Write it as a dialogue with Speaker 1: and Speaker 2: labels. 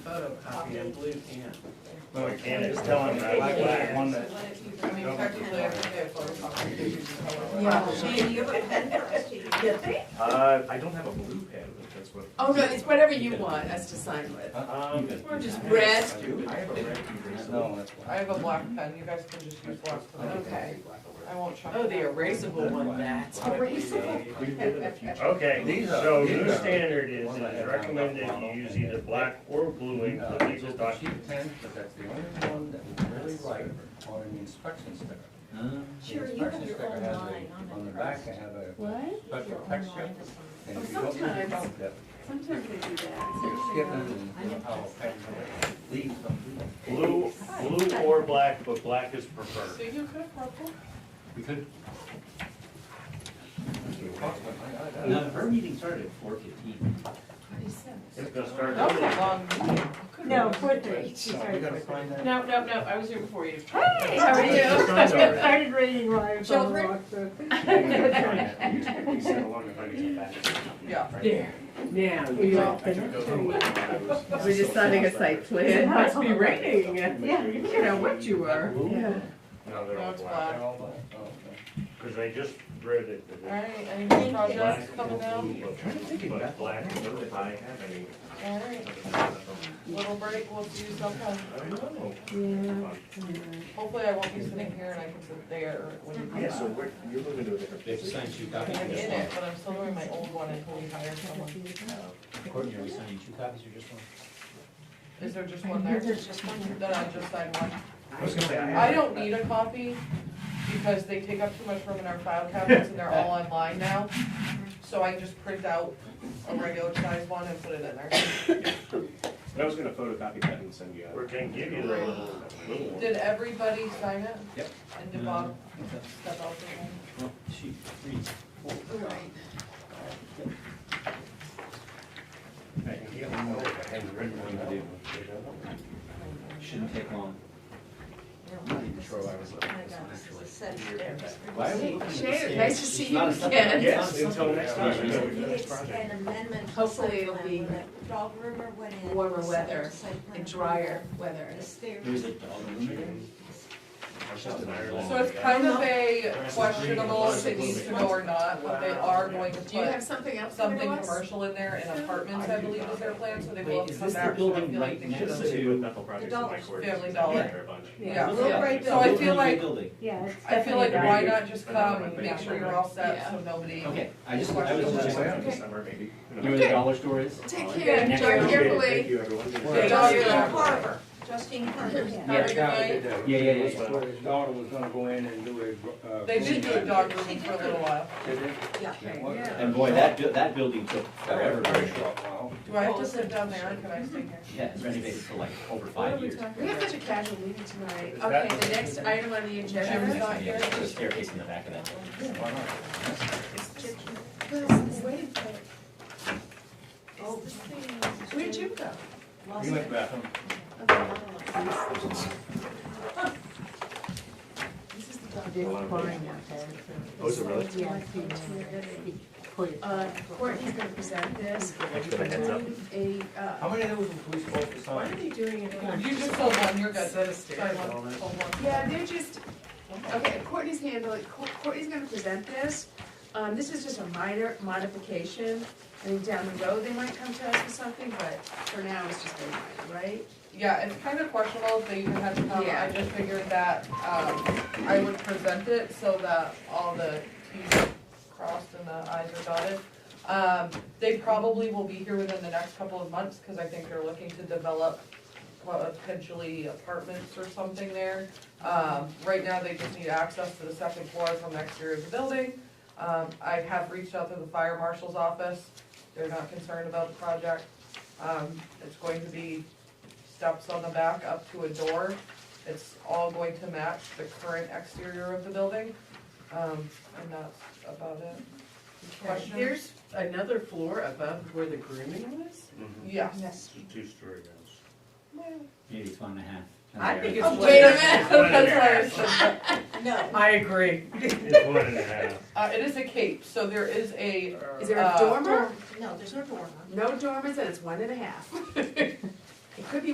Speaker 1: photocopy in blue pen.
Speaker 2: Well, we can't, just tell them that, like, that one that.
Speaker 3: I mean, technically, I could get a photocopy. if you just have it.
Speaker 4: Man, you have a pen first, you think?
Speaker 2: Uh, I don't have a blue pen, if that's what.
Speaker 3: Oh, no, it's whatever you want us to sign with.
Speaker 2: Um.
Speaker 3: Or just
Speaker 2: I have a-
Speaker 3: red.
Speaker 2: I do. I have a red eraser.
Speaker 5: No, that's
Speaker 6: I
Speaker 5: why.
Speaker 6: have a black pen, you guys can just use black pen.
Speaker 3: Okay.
Speaker 6: I won't try.
Speaker 3: Oh, the erasable one, that's erasable.
Speaker 2: We did it a few times.
Speaker 5: These are-
Speaker 7: Okay, so
Speaker 5: these
Speaker 7: new
Speaker 5: are-
Speaker 7: standard is, it is recommended you use either black or blue ink for
Speaker 5: Uh,
Speaker 7: legal
Speaker 5: just a
Speaker 7: documents.
Speaker 5: cheap pen, but that's the only one that we really like on an inspection sticker.
Speaker 4: Sure,
Speaker 5: The
Speaker 4: you have
Speaker 5: inspection
Speaker 4: your
Speaker 5: sticker
Speaker 4: own
Speaker 5: has a-
Speaker 4: line on it
Speaker 5: On the back,
Speaker 4: first.
Speaker 5: I have a
Speaker 8: What?
Speaker 5: special
Speaker 4: Your own
Speaker 5: texture.
Speaker 4: line is on
Speaker 5: and
Speaker 8: Oh,
Speaker 5: if you don't use it,
Speaker 8: sometimes.
Speaker 5: that-
Speaker 8: Sometimes they do that.
Speaker 5: You're skipping the power pack, leaves them.
Speaker 7: Blue, blue or black, but black is
Speaker 6: So
Speaker 7: preferred.
Speaker 6: you could have purple?
Speaker 1: We could,
Speaker 5: No,
Speaker 1: no, her meeting started at four fifteen.
Speaker 7: It's gonna start.
Speaker 6: That was a long meeting.
Speaker 4: No, four thirty, she
Speaker 5: So we
Speaker 4: started
Speaker 5: gotta
Speaker 4: four thirty.
Speaker 5: find that.
Speaker 6: No, no, no, I was here before you.
Speaker 4: Hey, how are you?
Speaker 7: It's not
Speaker 4: I
Speaker 7: already.
Speaker 4: started reading while I was on
Speaker 3: Children?
Speaker 4: walk, so-
Speaker 2: We sent along the buddies back.
Speaker 6: Yeah.
Speaker 3: There, now
Speaker 4: We
Speaker 3: you
Speaker 4: all
Speaker 3: are.
Speaker 4: can-
Speaker 3: We're deciding a site plan. It must be raining.
Speaker 4: Yeah.
Speaker 3: You know what you are.
Speaker 4: Yeah.
Speaker 2: No, they're
Speaker 6: No,
Speaker 2: all
Speaker 6: it's
Speaker 2: black.
Speaker 5: They're
Speaker 6: black.
Speaker 5: all black? Oh, okay.
Speaker 7: Cause I just read it. that it's
Speaker 6: Alright, any more projects
Speaker 7: black
Speaker 6: coming
Speaker 7: or
Speaker 6: down?
Speaker 7: blue, but-
Speaker 2: Trying to think of that.
Speaker 7: But black, I don't think I have any.
Speaker 6: Alright, little break, we'll do sometime.
Speaker 7: I don't know.
Speaker 6: Hopefully I won't be sitting here and I can sit there when you come
Speaker 2: Yeah, so
Speaker 6: back.
Speaker 2: we're, you're moving to a different.
Speaker 1: They've sent you
Speaker 6: I mean,
Speaker 1: copies of
Speaker 6: I'm
Speaker 1: this
Speaker 6: in
Speaker 1: one.
Speaker 6: it, but I'm still doing my old one until we hire someone.
Speaker 1: Courtney, are we signing two copies or just one?
Speaker 6: Is there just one there?
Speaker 4: There's just one there.
Speaker 6: Then I just signed one.
Speaker 2: I was gonna say, I
Speaker 6: I don't need a copy because they take up too much room in our file cabinets and they're all online now. So I just print out a regular size one and put it in there.
Speaker 2: But I was gonna photocopy that and send you
Speaker 7: Or
Speaker 2: out.
Speaker 7: can give you the little, little one.
Speaker 6: Did everybody sign it?
Speaker 2: Yep.
Speaker 6: And did Bob step out for one?
Speaker 1: Well, she reads.
Speaker 2: I can get one more if I haven't written one down.
Speaker 1: Shouldn't take long.
Speaker 2: Not even sure why I was looking
Speaker 4: My
Speaker 2: at this
Speaker 4: God,
Speaker 2: one,
Speaker 4: this is
Speaker 2: actually.
Speaker 4: a set of stairs.
Speaker 1: Why are we looking at the
Speaker 3: Sharon,
Speaker 1: stairs?
Speaker 3: nice to see
Speaker 1: It's
Speaker 3: you
Speaker 1: not a step-
Speaker 3: again.
Speaker 2: Yes, until next time. I know
Speaker 4: If
Speaker 2: we've
Speaker 4: you
Speaker 2: done this
Speaker 4: get
Speaker 2: project.
Speaker 4: an amendment to
Speaker 3: Hopefully
Speaker 4: site
Speaker 3: it'll
Speaker 4: plan
Speaker 3: be
Speaker 4: when the dog rumor went in.
Speaker 3: warmer
Speaker 4: the
Speaker 3: weather
Speaker 4: site plan
Speaker 3: And drier
Speaker 4: approval,
Speaker 3: weather.
Speaker 4: The stairs.
Speaker 1: There was a dog room there.
Speaker 2: It's just an Ireland.
Speaker 6: So it's kind of a questionable if it needs to go or not, but they are going to
Speaker 3: Do you have
Speaker 6: put
Speaker 3: something else to
Speaker 6: something
Speaker 3: bring to us?
Speaker 6: commercial in there and apartments, I believe is their plan, so they will have
Speaker 1: Wait,
Speaker 6: to
Speaker 1: is
Speaker 6: come
Speaker 1: this the
Speaker 6: back. so I
Speaker 1: building
Speaker 6: feel like
Speaker 1: right
Speaker 6: they
Speaker 1: next
Speaker 6: should
Speaker 2: Just
Speaker 6: have-
Speaker 2: to do with Bethel Projects in
Speaker 4: Dollars.
Speaker 2: my court.
Speaker 6: Family Dollar.
Speaker 2: They're a bunch.
Speaker 3: Yeah.
Speaker 4: The little gray
Speaker 6: So I
Speaker 4: building.
Speaker 6: feel like,
Speaker 1: Building.
Speaker 4: Yeah, it's
Speaker 6: I feel like
Speaker 4: definitely
Speaker 6: why
Speaker 4: dark.
Speaker 6: not just come, make sure you're all set, so nobody.
Speaker 1: Okay, I just, I was just, you
Speaker 2: This summer, maybe.
Speaker 1: know where the dollar store is?
Speaker 3: Take
Speaker 1: Dollar.
Speaker 3: care,
Speaker 1: Next
Speaker 3: drive
Speaker 1: door.
Speaker 2: Oh, Thank
Speaker 3: carefully.
Speaker 2: you, everyone.
Speaker 3: Thank
Speaker 4: Justine
Speaker 3: Yeah.
Speaker 4: Carver, Justine Carver.
Speaker 1: Yeah.
Speaker 6: Have a good night.
Speaker 1: Yeah, yeah, yeah, yeah.
Speaker 5: Where his daughter was gonna go in and do a, uh.
Speaker 6: They did do a dog room for a little while.
Speaker 5: Did they?
Speaker 4: Yeah.
Speaker 5: What?
Speaker 3: Yeah.
Speaker 1: And boy, that, bu- that building took
Speaker 5: That
Speaker 1: forever.
Speaker 5: was a very short while.
Speaker 6: Do I have to sit down there or can I stay here?
Speaker 1: Yeah, it's renovated for like over five years.
Speaker 3: We have such a casual meeting tonight.
Speaker 2: Is
Speaker 3: Okay,
Speaker 2: that-
Speaker 3: the next item on the
Speaker 6: Jim's
Speaker 3: agenda.
Speaker 6: not
Speaker 1: Yeah,
Speaker 6: here.
Speaker 1: there's a staircase in the back of that building.
Speaker 5: Why not?
Speaker 4: Oh,
Speaker 3: Where'd you go?
Speaker 5: You went back.
Speaker 2: Those are really.
Speaker 3: Uh, Courtney's gonna present this.
Speaker 2: Thanks for the heads up.
Speaker 3: A,
Speaker 5: How
Speaker 3: uh,
Speaker 5: many of those were we supposed to
Speaker 3: why are
Speaker 5: sign?
Speaker 3: they doing it again?
Speaker 6: You just sold one, you're good.
Speaker 3: Set of
Speaker 6: Sorry, one, sold one.
Speaker 3: Yeah, they're just, okay, Courtney's handling, Cour- Courtney's gonna present this. Um, this is just a minor modification. I think down the road, they might come to us with something, but for now, it's just very minor, right?
Speaker 6: Yeah, it's kind of questionable if they even had to come. I
Speaker 3: Yeah.
Speaker 6: just figured that, um, I would present it so that all the Ts are crossed and the Is are dotted. Um, they probably will be here within the next couple of months, cause I think they're looking to develop well, potentially apartments or something there. Um, right now, they just need access to the second floor from the exterior of the building. Um, I have reached out to the fire marshal's office, they're not concerned about the project. Um, it's going to be steps on the back up to a door. It's all going to match the current exterior of the building. Um, and that's about it. Questions?
Speaker 3: There's another floor above where the grooming was?
Speaker 6: Yes.
Speaker 4: Yes.
Speaker 7: Two-story house.
Speaker 1: Maybe it's one and a half.
Speaker 3: I think it's-
Speaker 6: Oh, Wait a minute,
Speaker 7: One and a
Speaker 6: that's what I was thinking.
Speaker 4: No.
Speaker 3: I agree.
Speaker 7: It's one and a half.
Speaker 6: Uh, it is a cape, so there is a,
Speaker 3: Is there a
Speaker 6: Uh,
Speaker 3: dormer?
Speaker 4: No, there's no dormer.
Speaker 3: No dormers, and it's one and a half. It could be